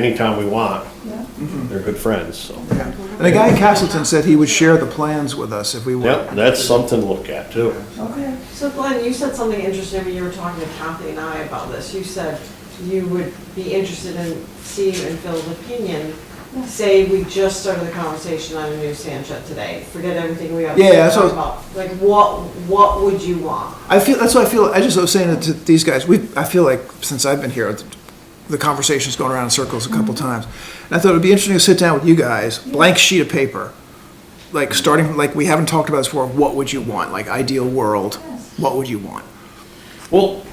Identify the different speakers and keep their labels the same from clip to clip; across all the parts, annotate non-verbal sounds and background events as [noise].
Speaker 1: anytime we want.
Speaker 2: Yeah.
Speaker 3: Mm.
Speaker 1: They're good friends, so.
Speaker 3: Yeah. And the guy in Castleton said he would share the plans with us if we
Speaker 1: Yep,
Speaker 3: would.
Speaker 1: that's something to look at too.
Speaker 2: Okay.
Speaker 4: So Glenn, you said something interesting when you were talking to Kathy and I about this. You said you would be interested in Steve and Phil's opinion.
Speaker 2: Yeah.
Speaker 4: Say we just started the conversation on a new sand shed today. Forget everything we have
Speaker 3: Yeah,
Speaker 4: to
Speaker 3: that's
Speaker 4: talk
Speaker 3: what-
Speaker 4: about. Like, what, what would you want?
Speaker 3: I feel, that's what I feel, I just was saying to these guys, we, I feel like since I've been here, the conversation's going around in circles a couple times. And I thought it'd be interesting to sit down with you guys, blank sheet of paper. Like starting, like we haven't talked about this before, what would you want? Like ideal world, what would you want?
Speaker 1: Well,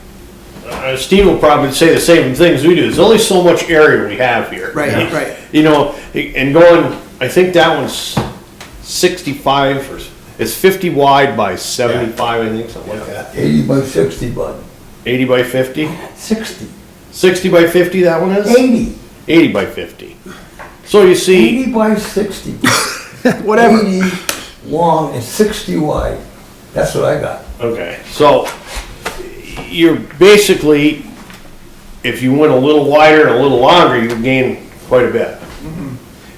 Speaker 1: uh, Steve will probably say the same things we do. There's only so much area we have here. [laughs]
Speaker 3: Right, right.
Speaker 1: You know, and going, I think that one's sixty-five or, s- it's fifty wide by seventy-five, I think, something like that.
Speaker 5: 80 by 60, bud.
Speaker 1: Eighty by fifty?
Speaker 5: 60.
Speaker 1: Sixty by fifty, that one is?
Speaker 5: 80.
Speaker 1: Eighty by fifty. So you see,
Speaker 5: 80 by 60.
Speaker 3: [laughs] Whatever.
Speaker 5: 80 long and 60 wide. That's what I got.
Speaker 1: okay, so you're basically, if you went a little wider and a little longer, you gain quite a bit.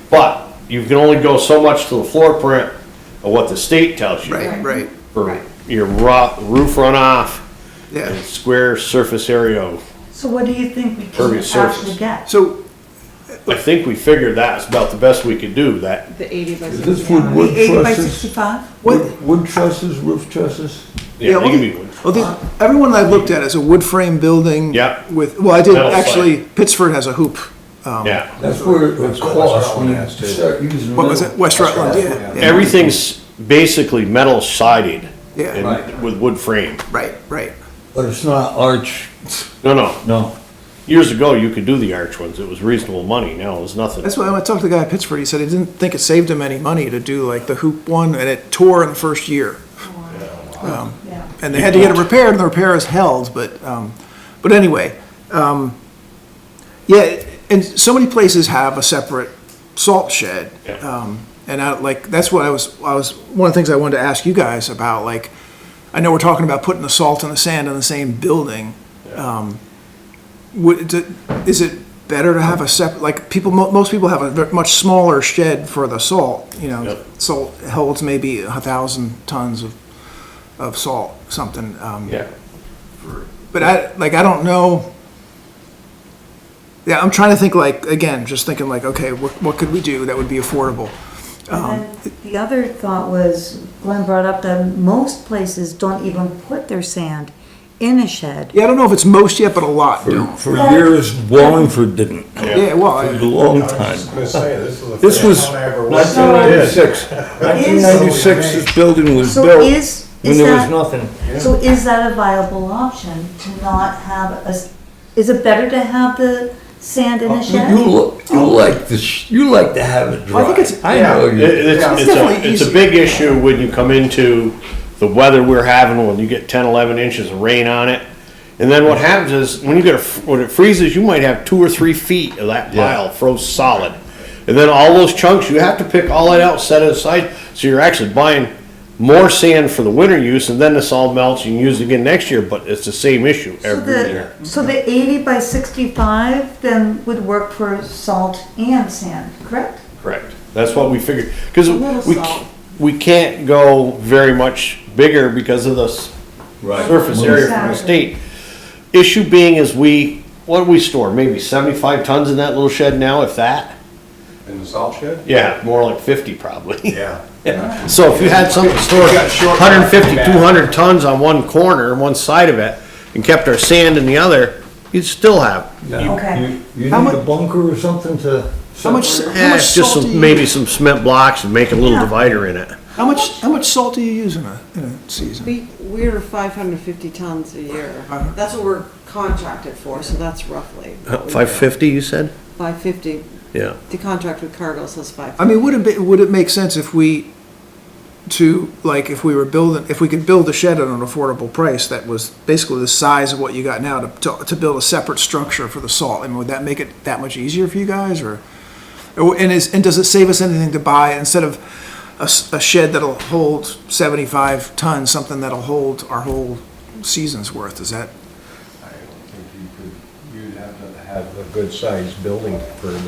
Speaker 1: But you can only go so much to the floor print of what the state tells you.
Speaker 3: Right, right,
Speaker 1: For your ro- roof runoff and
Speaker 3: yeah.
Speaker 1: square surface area. of-
Speaker 2: So what do you think we can
Speaker 1: Pervious
Speaker 2: actually
Speaker 1: surface.
Speaker 2: get?
Speaker 3: So,
Speaker 1: I think we figured that's about the best we could do, that
Speaker 4: The eighty by
Speaker 5: Is this wood wood
Speaker 2: Eighty by
Speaker 5: trusses?
Speaker 2: sixty-five?
Speaker 5: Wood wood trusses, roof trusses?
Speaker 1: Yeah, they
Speaker 3: well,
Speaker 1: can be wood.
Speaker 3: Well, the, everyone I looked at is a wood frame building.
Speaker 1: Yeah.
Speaker 3: With, well, I did,
Speaker 1: Metal slab.
Speaker 3: actually, Pittsford has a hoop. um,
Speaker 1: Yeah.
Speaker 5: That's where it would
Speaker 6: That's what
Speaker 5: cost
Speaker 6: West
Speaker 5: when you
Speaker 6: Rutland has, too.
Speaker 5: start using.
Speaker 3: What was it? West Rutland,
Speaker 5: That's
Speaker 3: yeah.
Speaker 5: right.
Speaker 3: yeah.
Speaker 1: Everything's basically metal sided.
Speaker 3: Yeah.
Speaker 1: and
Speaker 5: Right.
Speaker 1: With wood frame.
Speaker 3: Right, right.
Speaker 5: But it's not arch,
Speaker 1: No, no.
Speaker 5: no.
Speaker 1: Years ago, you could do the arch ones. It was reasonable money. Now it's nothing.
Speaker 3: That's why when I talked to the guy at Pittsburgh, he said he didn't think it saved him any money to do like the hoop one, and it tore in the first year.
Speaker 2: Yeah.
Speaker 3: And they had to get it repaired, and the repair is held, but, um, but anyway. Um, yeah, and so many places have a separate salt shed.
Speaker 1: Yeah.
Speaker 3: Um, and I, like, that's what I was, I was, one of the things I wanted to ask you guys about, like, I know we're talking about putting the salt and the sand in the same building. Um, Would, d- is it better to have a separate, like, people, mo- most people have a ve- much smaller shed for the salt, you know?
Speaker 1: Yep.
Speaker 3: Salt holds maybe a thousand tons of, of salt, something. um,
Speaker 1: Yeah.
Speaker 3: But I, like, I don't know. Yeah, I'm trying to think like, again, just thinking like, okay, what, what could we do that would be affordable?
Speaker 2: And then the other thought was, Glenn brought up that most places don't even put their sand in a shed.
Speaker 3: Yeah, I don't know if it's most yet, but a lot do.
Speaker 5: For for years, Wallingford didn't.
Speaker 3: Yeah, well,
Speaker 5: For a
Speaker 3: I-
Speaker 5: long
Speaker 6: I was just
Speaker 5: time.
Speaker 6: gonna say, this is the
Speaker 5: This was
Speaker 6: first time I ever watched.
Speaker 2: So-
Speaker 5: 1996. 1996, this building was
Speaker 2: So
Speaker 5: built
Speaker 2: is,
Speaker 5: when
Speaker 2: is
Speaker 5: there was
Speaker 2: that,
Speaker 5: nothing.
Speaker 2: so is that a viable option to not have a, s- is it better to have the sand in a
Speaker 5: You
Speaker 2: shed?
Speaker 5: look, you like to, sh- you like to have it dry.
Speaker 3: Well, I think it's-
Speaker 5: I
Speaker 6: yeah,
Speaker 5: know
Speaker 1: It-
Speaker 5: you.
Speaker 1: it's,
Speaker 6: Yeah, it's
Speaker 1: it's a,
Speaker 3: definitely
Speaker 1: it's a
Speaker 3: easier.
Speaker 1: big issue when you come into the weather we're having when you get 10, 11 inches of rain on it. And then what happens is when you get a, when it freezes, you might have two or three feet of that pile froze solid. And then all those chunks, you have to pick all that out, set it aside. So you're actually buying more sand for the winter use and then this all melts. You can use it again next year, but it's the same issue
Speaker 2: So
Speaker 1: every year.
Speaker 2: the, so the eighty by sixty-five then would work for salt and sand, correct?
Speaker 1: Correct. That's what we figured, because
Speaker 4: little
Speaker 1: we,
Speaker 4: salt.
Speaker 1: c- we can't go very much bigger because of the s-
Speaker 5: Right.
Speaker 1: surface area from the
Speaker 2: Exactly.
Speaker 1: state. Issue being is we, what do we store, maybe seventy-five tons in that little shed now, if that?
Speaker 6: In the salt shed?
Speaker 1: Yeah, more like fifty probably.
Speaker 6: Yeah.
Speaker 1: [laughs] So if you had something to store
Speaker 6: got short-
Speaker 1: 150, 200 tons on one corner, one side of it, and kept our sand in the other, you'd still have,
Speaker 5: Yeah.
Speaker 2: Okay.
Speaker 5: You- You
Speaker 3: How
Speaker 5: need
Speaker 3: mu-
Speaker 5: a bunker or something to.
Speaker 3: how much,
Speaker 5: separate
Speaker 3: how
Speaker 1: eh,
Speaker 3: much
Speaker 1: just
Speaker 3: salt do
Speaker 1: some,
Speaker 3: you,
Speaker 1: maybe
Speaker 3: use?
Speaker 1: some cement blocks and make a little
Speaker 2: Yeah.
Speaker 1: divider in it.
Speaker 3: how much, how much salt do you use in a, in a season?
Speaker 4: We, we're five hundred fifty tons a year.
Speaker 3: Uh-huh.
Speaker 4: That's what we're contracted for, so that's roughly.
Speaker 1: Five fifty, you said?
Speaker 4: Five fifty.
Speaker 1: Yeah.
Speaker 4: The contract with Cargill says five.
Speaker 3: I mean, would it be, would it make sense if we, to, like, if we were building, if we could build a shed at an affordable price that was basically the size of what you got now to, to, to build a separate structure for the salt? I mean, would that make it that much easier for you guys or? or- And is, and does it save us anything to buy instead of a, s- a shed that'll hold seventy-five tons, something that'll hold our whole season's worth? Is that?
Speaker 6: I don't think you could, you'd have to have the good-sized building for